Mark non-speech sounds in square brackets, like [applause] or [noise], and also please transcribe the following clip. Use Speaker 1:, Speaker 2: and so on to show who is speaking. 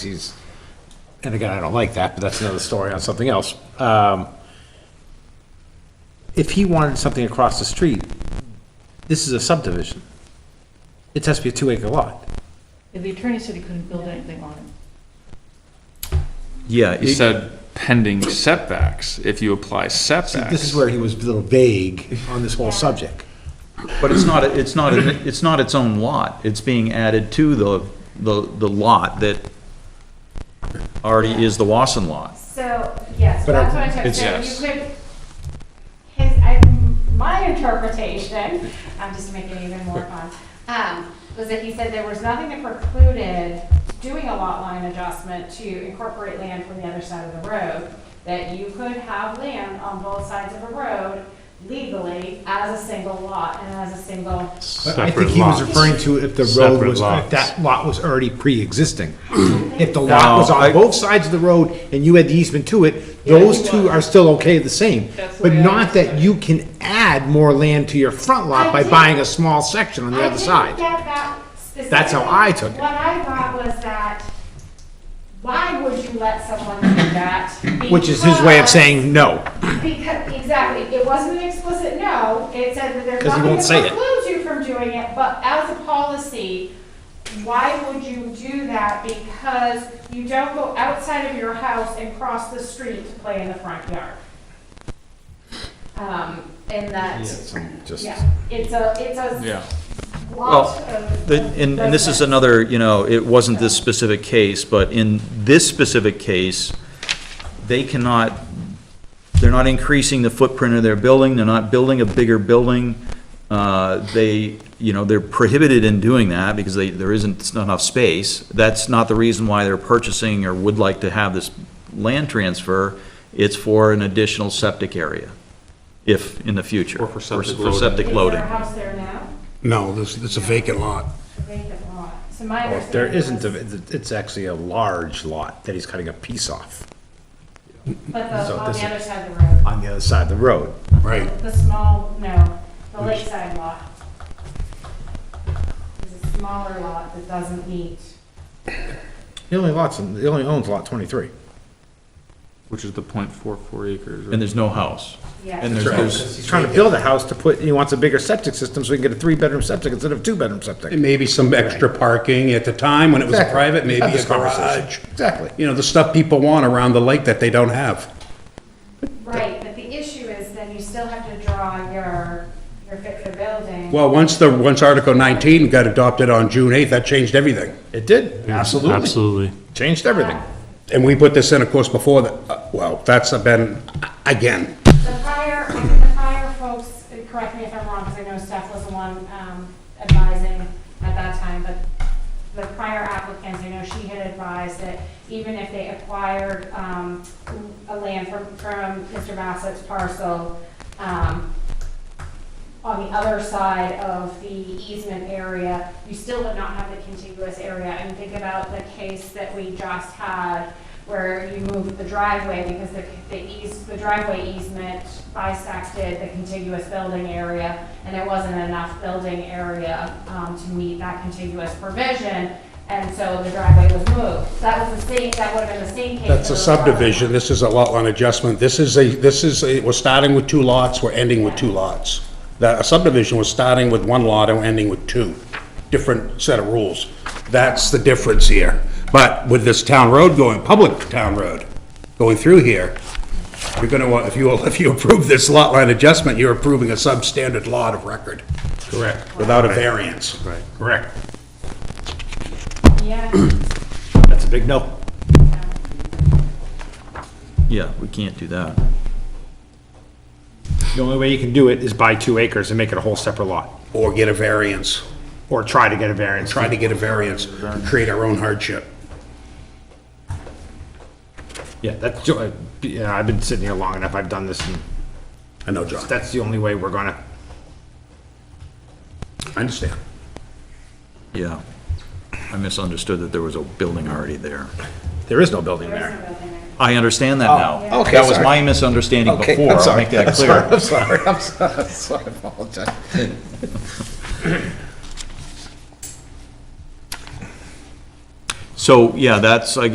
Speaker 1: he's, and again, I don't like that, but that's another story on something else. Um, If he wanted something across the street, this is a subdivision. It has to be a two acre lot.
Speaker 2: The attorney said he couldn't build anything on it.
Speaker 3: Yeah,
Speaker 4: He
Speaker 3: it-
Speaker 4: said pending setbacks, if you apply
Speaker 1: See,
Speaker 4: setbacks.
Speaker 1: this is where he was a little vague on this whole subject.
Speaker 3: but it's not, it's not, it's not its own lot. It's being added to the, the, the lot that already is the Wasson lot.
Speaker 5: So, yes,
Speaker 1: But
Speaker 5: that's
Speaker 1: I-
Speaker 5: what I took,
Speaker 4: It's-
Speaker 5: so
Speaker 4: Yes.
Speaker 5: you could, his, I, my interpretation, I'm just making it even more fun, um, was that he said there was nothing that precluded doing a lot line adjustment to incorporate land from the other side of the road, that you could have land on both sides of a road legally as a single lot and as a single,
Speaker 1: But I think
Speaker 6: separate
Speaker 1: he was
Speaker 6: lots.
Speaker 1: referring to if the road
Speaker 6: Separate
Speaker 1: was, if
Speaker 6: lots.
Speaker 1: that lot was already pre-existing. If the lot was
Speaker 3: No,
Speaker 1: on
Speaker 3: I-
Speaker 1: both sides of the road and you had the easement to it, those two are still okay the same.
Speaker 2: That's the
Speaker 1: But
Speaker 2: way I
Speaker 1: not that
Speaker 2: understood it.
Speaker 1: you can add more land to your front lot
Speaker 5: I
Speaker 1: by
Speaker 5: did-
Speaker 1: buying a small section on the
Speaker 5: I
Speaker 1: other
Speaker 5: didn't
Speaker 1: side.
Speaker 5: get that
Speaker 1: That's how I took it.
Speaker 5: specifically. What I thought was that, why would you let someone do that?
Speaker 1: Which is his way of
Speaker 5: Because-
Speaker 1: saying no.
Speaker 5: Because, exactly, it wasn't an explicit no, it said that there's
Speaker 1: 'Cause he
Speaker 5: nothing
Speaker 1: won't say it.
Speaker 5: that precludes you from doing it, but as a policy, why would you do that? Because you don't go outside of your house and cross the street to play in the front yard. Um, and that, yeah, it's a, it's
Speaker 4: Yeah.
Speaker 5: a
Speaker 3: Well,
Speaker 5: lot of.
Speaker 3: The- And, and this is
Speaker 5: residents.
Speaker 3: another, you know, it wasn't this specific case, but in this specific case, they cannot, they're not increasing the footprint of their building, they're not building a bigger building. Uh, They, you know, they're prohibited in doing that because they, there isn't enough space. That's not the reason why they're purchasing or would like to have this land transfer. It's for an additional septic area, if, in the future.
Speaker 6: Or for septic
Speaker 3: for
Speaker 6: loading.
Speaker 3: septic
Speaker 5: Is
Speaker 3: loading.
Speaker 5: there a house there now?
Speaker 6: No, this, it's a vacant lot.
Speaker 5: A vacant lot. So my
Speaker 1: Well,
Speaker 5: understanding.
Speaker 1: There isn't,
Speaker 5: was-
Speaker 1: a- it's actually a large lot that he's cutting a piece off
Speaker 5: But
Speaker 1: so
Speaker 5: the, on
Speaker 1: this
Speaker 5: the
Speaker 1: is-
Speaker 5: other side of the road.
Speaker 1: on the other side of the road.
Speaker 6: Right.
Speaker 5: The small, no, the lakeside lot. It's a smaller lot that doesn't meet.
Speaker 1: He only lots, he only owns lot twenty-three.
Speaker 4: Which is the point four four acres.
Speaker 3: And there's no house.
Speaker 5: Yeah.
Speaker 3: And there's, there's
Speaker 1: He's trying to build a house to put, he wants a bigger septic system so he can get a three-bedroom septic instead of two-bedroom septic.
Speaker 6: And maybe some extra parking at the time when it was
Speaker 1: Exactly.
Speaker 6: private, maybe
Speaker 1: Had
Speaker 6: a
Speaker 1: this conversation.
Speaker 6: garage.
Speaker 1: Exactly.
Speaker 6: You know, the stuff people want around the lake that they don't have.
Speaker 5: Right, but the issue is then you still have to draw your, your fix the building.
Speaker 6: Well, once the, once Article 19 got adopted on June 8th, that changed everything.
Speaker 1: It did, absolutely.
Speaker 7: Absolutely.
Speaker 1: Changed everything.
Speaker 6: And we put this in, of course, before that, uh, well, that's been, again,
Speaker 5: The prior, I think the prior folks, and correct me if I'm wrong, because I know Steph was the one um, advising at that time, but the prior applicants, I know she had advised that even if they acquired um, a land from, from Mr. Bassett's parcel, um, on the other side of the easement area, you still would not have the contiguous area. And think about the case that we just had where you moved the driveway because the, the eas, the driveway easement bisected the contiguous building area and there wasn't enough building area, um, to meet that contiguous provision. And so the driveway was moved. That was the same, that would have been the same case.
Speaker 6: that's a
Speaker 5: for the driveway.
Speaker 6: subdivision, this is a lot line adjustment, this is a, this is, a- we're starting with two lots, we're ending with two lots. That, a subdivision was starting with one lot and ending with two, different set of rules. That's the difference here. But with this town road going, public town road, going through here, you're gonna, want- if you, [laughs] if you approve this lot line adjustment, you're approving a substandard lot of record. Correct. Without a variance. Right. Correct.
Speaker 5: Yeah.
Speaker 1: That's a big no.
Speaker 3: Yeah, we can't do that.
Speaker 1: The only way you can do it is buy two acres and make it a whole separate lot,
Speaker 6: Or get a variance,
Speaker 1: or try to get a variance.
Speaker 6: try to get a variance, create our own hardship.
Speaker 1: Yeah, that's, uh, yeah, I've been sitting here long enough, I've done this, and
Speaker 6: I know, John,
Speaker 1: that's the only way we're gonna,
Speaker 6: I understand.
Speaker 3: Yeah. I misunderstood that there was a building already there.
Speaker 1: there is no building
Speaker 5: There is
Speaker 1: there.
Speaker 5: no building there.
Speaker 3: I understand that now.
Speaker 1: Oh, okay,
Speaker 3: That was
Speaker 1: sorry.
Speaker 3: my misunderstanding before. I'll make that clear.
Speaker 1: [laughs] I'm sorry, I'm sorry, I'm sorry, I apologize.
Speaker 3: So, yeah, that's, I